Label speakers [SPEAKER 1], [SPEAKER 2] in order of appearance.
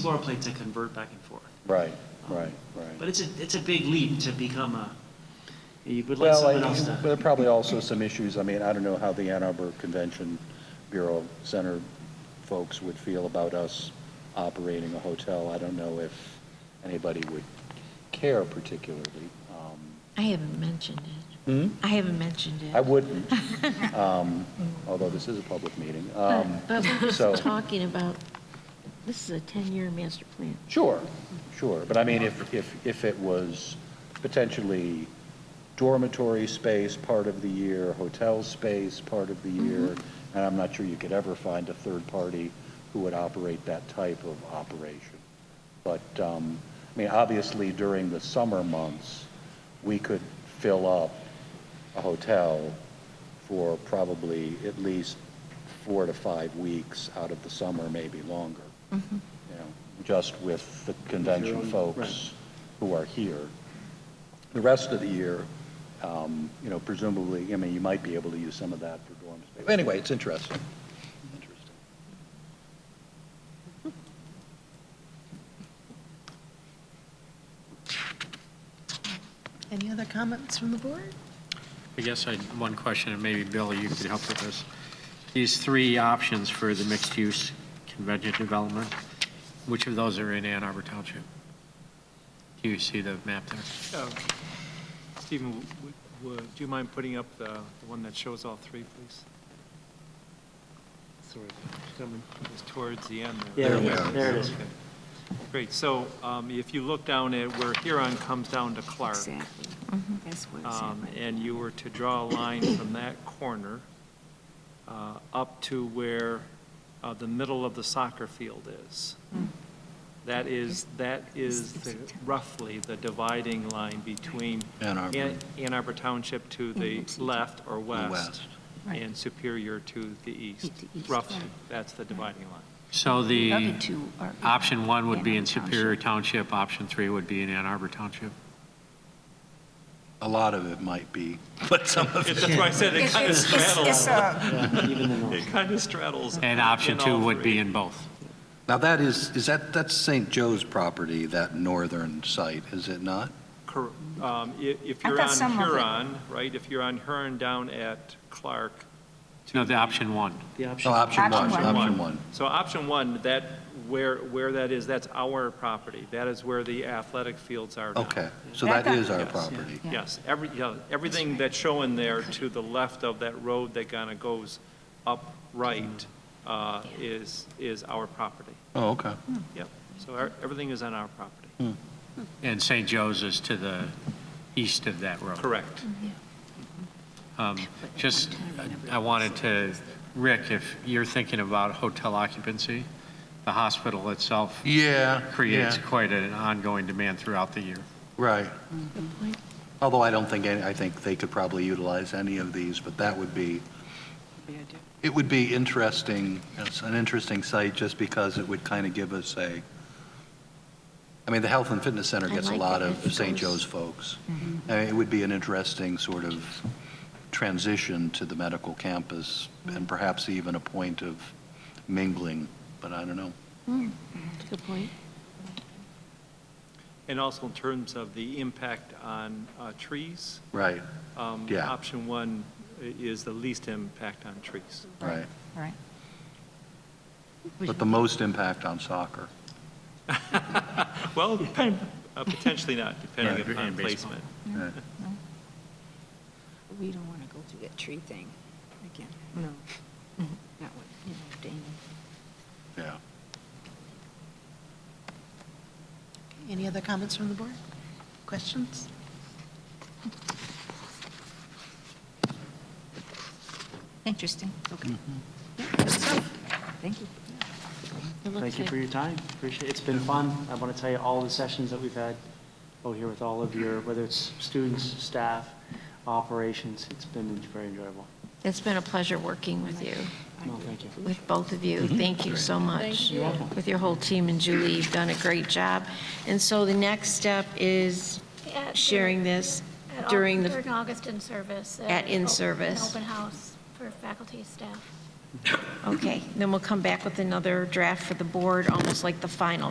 [SPEAKER 1] floor plates that convert back and forth.
[SPEAKER 2] Right, right, right.
[SPEAKER 1] But it's a, it's a big leap to become a, you would let
[SPEAKER 2] Well,
[SPEAKER 1] someone
[SPEAKER 2] I-
[SPEAKER 1] else
[SPEAKER 2] but there are
[SPEAKER 1] to.
[SPEAKER 2] probably also some issues, I mean, I don't know how the Ann Arbor Convention Bureau Center folks would feel about us operating a hotel. I don't know if anybody would care particularly. Um,
[SPEAKER 3] I haven't mentioned it. I haven't mentioned it.
[SPEAKER 2] Hmm? I wouldn't, um, although this is a public meeting. Um,
[SPEAKER 3] But we're
[SPEAKER 2] So,
[SPEAKER 3] just talking about, this is a 10-year master plan.
[SPEAKER 2] sure, sure, but I mean, if, if, if it was potentially dormitory space part of the year, hotel space part of the year, and I'm not sure you could ever find a third party who would operate that type of operation. But, um, I mean, obviously during the summer months, we could fill up a hotel for probably at least four to five weeks out of the summer, maybe longer. You know, just with the convention folks who are here. The rest of the year, um, you know, presumably, I mean, you might be able to use some of that for dorm space. Anyway, it's interesting. Interesting.
[SPEAKER 4] Any other comments from the board?
[SPEAKER 5] I guess I, one question, and maybe Bill, you could help with this. These three options for the mixed-use convention development, which of those are in Ann Arbor Township? Do you see the map there?
[SPEAKER 6] Uh, Stephen, w- w- w- do you mind putting up the the one that shows all three, please? Sorry, gentlemen, it was towards the end there.
[SPEAKER 1] There we are. There it is.
[SPEAKER 6] Okay. Great, so um, if you look down at where Huron comes down to Clark,
[SPEAKER 3] Exactly.
[SPEAKER 7] Mm-hmm.
[SPEAKER 3] That's what it's at
[SPEAKER 6] um,
[SPEAKER 3] right
[SPEAKER 6] and you were to draw a line from that corner uh, up to where uh, the middle of the soccer field is. That is, that is the- roughly the dividing line between
[SPEAKER 2] Ann Arbor.
[SPEAKER 6] Ann Ann Arbor Township to the left or west
[SPEAKER 2] west.
[SPEAKER 3] Right.
[SPEAKER 6] and Superior to the east.
[SPEAKER 3] To the east,
[SPEAKER 6] Roughly,
[SPEAKER 3] right.
[SPEAKER 6] that's the dividing line.
[SPEAKER 5] So
[SPEAKER 3] The other
[SPEAKER 5] the,
[SPEAKER 3] two are in
[SPEAKER 5] option one would be
[SPEAKER 3] Ann
[SPEAKER 5] in
[SPEAKER 3] Arbor
[SPEAKER 5] Superior Township, option three would be in Ann Arbor Township.
[SPEAKER 2] A lot of it might be, but some of
[SPEAKER 6] That's why I said it kind of straddles,
[SPEAKER 8] uh,
[SPEAKER 1] Even the
[SPEAKER 6] it
[SPEAKER 1] north.
[SPEAKER 6] kind of straddles.
[SPEAKER 5] And option
[SPEAKER 6] in
[SPEAKER 5] two
[SPEAKER 6] all
[SPEAKER 5] would
[SPEAKER 6] three.
[SPEAKER 5] be in both.
[SPEAKER 9] Now, that is, is that, that's St. Joe's property, that northern site, is it not?
[SPEAKER 6] Cor- um, i- If
[SPEAKER 8] I
[SPEAKER 6] you're
[SPEAKER 8] thought
[SPEAKER 6] on
[SPEAKER 8] some of it-
[SPEAKER 6] Huron, right, if you're on Huron down at Clark.
[SPEAKER 5] No, the option one.
[SPEAKER 1] The
[SPEAKER 9] No,
[SPEAKER 1] option,
[SPEAKER 9] option one,
[SPEAKER 8] Option
[SPEAKER 9] option one.
[SPEAKER 6] So option one, that, where, where that is, that's our property. That is where the athletic fields are now.
[SPEAKER 9] Okay, so that
[SPEAKER 8] That got-
[SPEAKER 9] is our
[SPEAKER 6] Yes.
[SPEAKER 9] property.
[SPEAKER 3] Yeah.
[SPEAKER 6] Yes, every, yeah, everything that's showing there to the left of that road that kind of goes upright uh, is, is our property.
[SPEAKER 9] Oh, okay.
[SPEAKER 6] Yep, so our- everything is on our property.
[SPEAKER 5] And St. Joe's is to the east of that road.
[SPEAKER 6] Correct.
[SPEAKER 5] Um, Just, I wanted to, Rick, if you're thinking about hotel occupancy, the hospital itself
[SPEAKER 9] Yeah,
[SPEAKER 5] creates quite an ongoing demand throughout the year.
[SPEAKER 9] Right.
[SPEAKER 3] point.
[SPEAKER 9] Although I don't think, any- I think they could probably utilize any of these, but that would be, it would be interesting, it's an interesting site just because it would kind of give us a, I mean, the Health and Fitness Center
[SPEAKER 3] I
[SPEAKER 9] gets a
[SPEAKER 3] like
[SPEAKER 9] lot
[SPEAKER 3] it
[SPEAKER 9] of
[SPEAKER 3] if it
[SPEAKER 9] St.
[SPEAKER 3] goes-
[SPEAKER 9] Joe's folks. I mean, It would be an interesting sort of transition to the medical campus and perhaps even a point of mingling, but I don't know.
[SPEAKER 3] Good point.
[SPEAKER 6] And also in terms of the impact on uh, trees,
[SPEAKER 9] Right,
[SPEAKER 6] um,
[SPEAKER 9] Yeah.
[SPEAKER 6] option one i- is the least impact on trees.
[SPEAKER 9] right.
[SPEAKER 8] Right.
[SPEAKER 9] But the most impact on soccer.
[SPEAKER 6] Well, depend- uh, potentially not,
[SPEAKER 5] Yeah,
[SPEAKER 6] depending
[SPEAKER 5] and
[SPEAKER 6] upon
[SPEAKER 5] baseball.
[SPEAKER 6] placement.
[SPEAKER 9] Yeah.
[SPEAKER 8] We don't want to go through that tree thing again.
[SPEAKER 3] No. That one, you know, Dana.
[SPEAKER 9] Yeah.
[SPEAKER 4] Any other comments from the board? Questions?
[SPEAKER 8] Interesting. Okay.
[SPEAKER 7] Mm-hmm.
[SPEAKER 8] Thank you.
[SPEAKER 4] It looks
[SPEAKER 7] Thank you
[SPEAKER 4] like-
[SPEAKER 7] for your time. Appreciate it. It's been fun. I want to tell you all the sessions that we've had over here with all of your, whether it's students, staff, operations, it's been very enjoyable.
[SPEAKER 3] It's been a pleasure working with you,
[SPEAKER 7] No, thank you.
[SPEAKER 3] with both of you.
[SPEAKER 2] Mm-hmm.
[SPEAKER 3] Thank you so much. With your whole team and Julie, you've done a great job. And so the next step is
[SPEAKER 10] At the-
[SPEAKER 3] sharing this
[SPEAKER 10] at Au-
[SPEAKER 3] during the
[SPEAKER 10] During August in-service. uh,
[SPEAKER 3] At
[SPEAKER 10] op-
[SPEAKER 3] in-service.
[SPEAKER 10] An open house for faculty, staff.
[SPEAKER 3] Okay, then we'll come back with another draft for the board, almost like the final